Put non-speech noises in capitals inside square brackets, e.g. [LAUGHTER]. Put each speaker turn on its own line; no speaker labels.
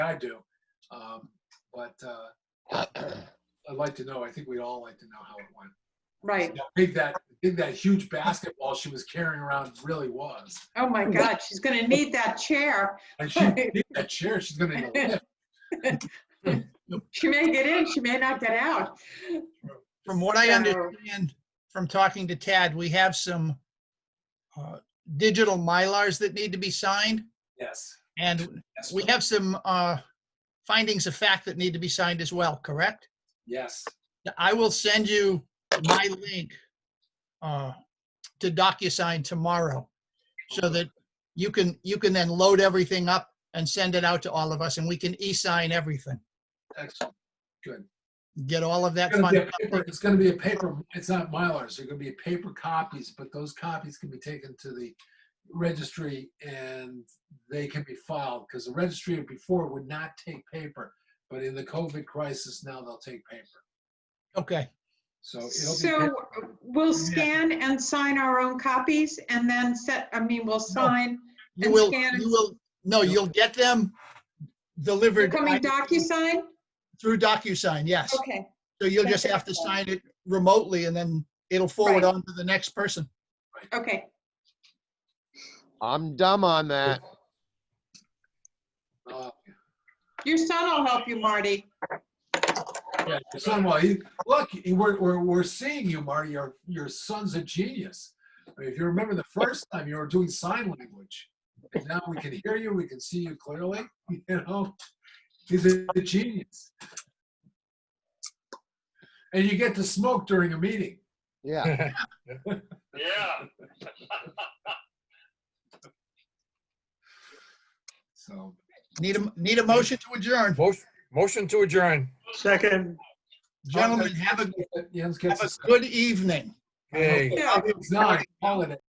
I do. Um, But uh, [CLEARS THROAT] I'd like to know, I think we'd all like to know how it went.
Right.
How big that, big that huge basketball she was carrying around really was.
Oh my God, she's gonna need that chair.
And [LAUGHS] she, need that chair, she's gonna need a lift.
[LAUGHS] She may get in, she may not get out.
From what I
So-
understand from talking to Tad, we have some uh, digital Mylars that need to be signed,
Yes.
and
Yes.
we have some uh, findings of fact that need to be signed as well, correct?
Yes.
I will send you my link uh, to DocuSign tomorrow so that you can, you can then load everything up and send it out to all of us, and we can e-sign everything.
Excellent. Good.
Get all of that
It's gonna be
fun.
a paper, it's gonna be a paper, it's not Mylars, they're gonna be paper copies, but those copies can be taken to the registry and they can be filed, because the registry before would not take paper, but in the COVID crisis, now they'll take paper.
Okay.
So it'll be.
So uh, we'll scan and sign our own copies and then set, I mean,
Oh,
we'll sign
You
and
will,
scan and-
you will, no, you'll get them
You're
delivered
coming
by-
DocuSign?
through DocuSign, yes.
Okay,
So you'll just have to sign it remotely and then it'll forward
Right.
on to the next person.
okay.
I'm dumb on that.
uh,
Your son will help you, Marty.
yeah, your Son, well, he, look, he- we're, we're, we're seeing you, Marty, your, your son's a genius. I mean, If you remember the first time, you were doing sign language. And now we can hear you, we can see you clearly, [LAUGHS] you know? He's a a genius. And you get to smoke during a meeting.
Yeah.
Yeah.
So,
Need a, need a motion to adjourn.
Motion, motion to adjourn.
Second,
Gentlemen, have a,
Jens gets
have
a
a good evening.
Yay.
Yeah.
It's not, holiday.